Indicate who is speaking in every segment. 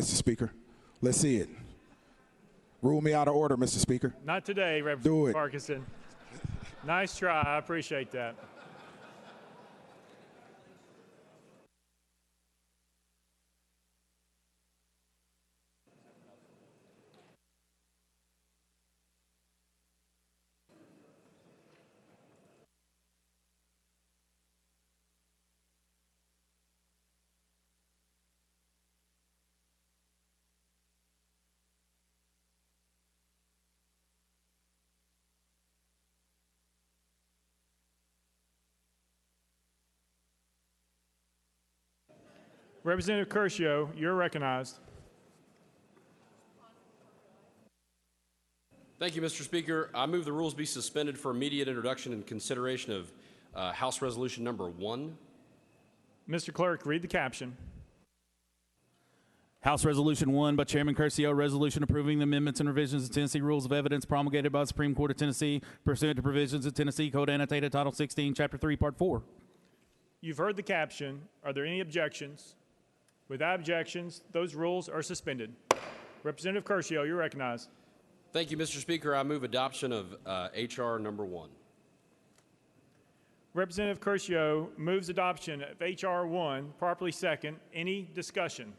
Speaker 1: Mr. Speaker. Let's see it. Rule me out of order, Mr. Speaker.
Speaker 2: Not today, Representative
Speaker 1: Do it.
Speaker 2: Parkinson. Nice try. I appreciate that. Representative Curcio, you're recognized.
Speaker 3: Thank you, Mr. Speaker. I move the rules be suspended for immediate introduction and consideration of uh, House Resolution Number 1.
Speaker 2: Mr. Clerk, read the caption.
Speaker 4: House Resolution 1 by Chairman Curcio, resolution approving the amendments and revisions to Tennessee Rules of Evidence promulgated by the Supreme Court of Tennessee pursuant to provisions of Tennessee Code Annotated Title 16, Chapter 3, Part 4.
Speaker 2: You've heard the caption. Are there any objections? Without objections, those rules are suspended. Representative Curcio, you're recognized.
Speaker 3: Thank you, Mr. Speaker. I move adoption of uh, HR Number 1.
Speaker 2: Representative Curcio moves adoption of H.R. 1, properly second. Any discussion?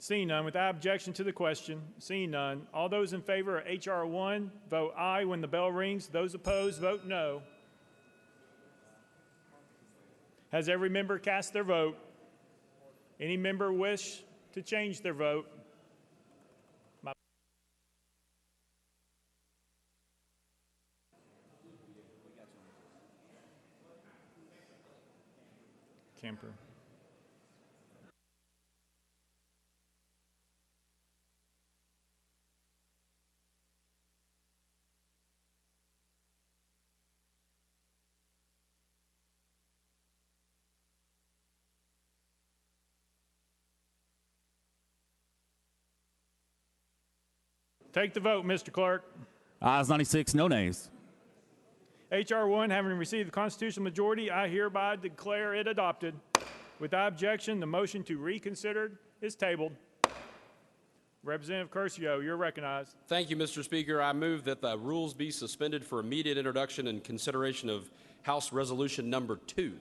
Speaker 2: Seeing none, without objection to the question, seeing none, all those in favor of H.R. 1, vote aye when the bell rings. Those opposed, vote no. Has every member cast their vote? Any member wish to change their vote? Camper. Take the vote, Mr. Clerk.
Speaker 4: Ayes 96, no nays.
Speaker 2: H.R. 1, having received the constitutional majority, I hereby declare it adopted. Without objection, the motion to reconsider is tabled. Representative Curcio, you're recognized.
Speaker 3: Thank you, Mr. Speaker. I move that the rules be suspended for immediate introduction and consideration of House Resolution Number 2.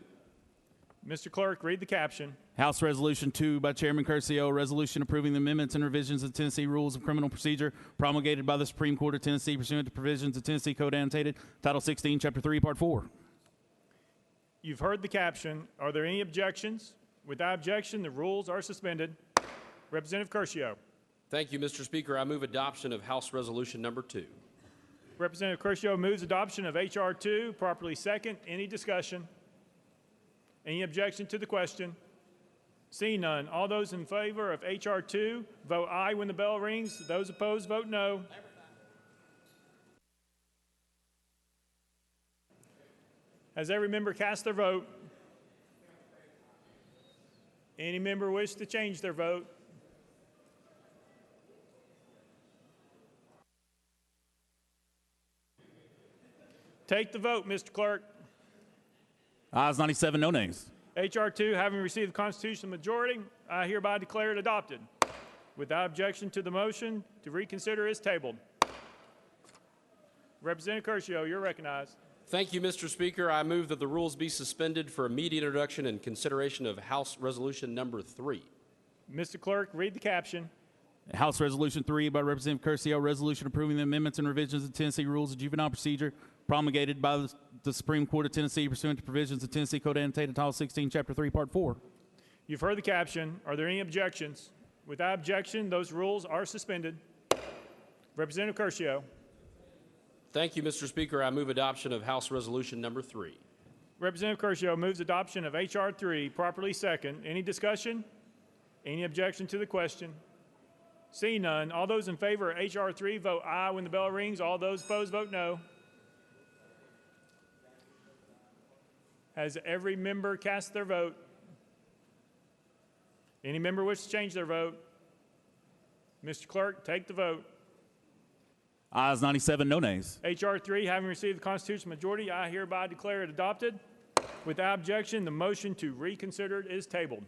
Speaker 2: Mr. Clerk, read the caption.
Speaker 4: House Resolution 2 by Chairman Curcio, resolution approving the amendments and revisions of Tennessee Rules of Criminal Procedure promulgated by the Supreme Court of Tennessee pursuant to provisions of Tennessee Code Annotated Title 16, Chapter 3, Part 4.
Speaker 2: You've heard the caption. Are there any objections? Without objection, the rules are suspended. Representative Curcio.
Speaker 3: Thank you, Mr. Speaker. I move adoption of House Resolution Number 2.
Speaker 2: Representative Curcio moves adoption of H.R. 2, properly second. Any discussion? Any objection to the question? Seeing none, all those in favor of H.R. 2, vote aye when the bell rings. Those opposed, vote no. Has every member cast their vote? Any member wish to change their vote? Take the vote, Mr. Clerk.
Speaker 4: Ayes 97, no nays.
Speaker 2: H.R. 2, having received the constitutional majority, I hereby declare it adopted. Without objection to the motion to reconsider is tabled. Representative Curcio, you're recognized.
Speaker 3: Thank you, Mr. Speaker. I move that the rules be suspended for immediate introduction and consideration of House Resolution Number 3.
Speaker 2: Mr. Clerk, read the caption.
Speaker 4: House Resolution 3 by Representative Curcio, resolution approving the amendments and revisions of Tennessee Rules of Juvenile Procedure promulgated by the- the Supreme Court of Tennessee pursuant to provisions of Tennessee Code Annotated Title 16, Chapter 3, Part 4.
Speaker 2: You've heard the caption. Are there any objections? Without objection, those rules are suspended. Representative Curcio.
Speaker 3: Thank you, Mr. Speaker. I move adoption of House Resolution Number 3.
Speaker 2: Representative Curcio moves adoption of H.R. 3, properly second. Any discussion? Any objection to the question? Seeing none, all those in favor of H.R. 3 vote aye when the bell rings. All those opposed vote no. Has every member cast their vote? Any member wish to change their vote? Mr. Clerk, take the vote.
Speaker 4: Ayes 97, no nays.
Speaker 2: H.R. 3, having received the constitutional majority, I hereby declare it adopted. Without objection, the motion to reconsider it is tabled.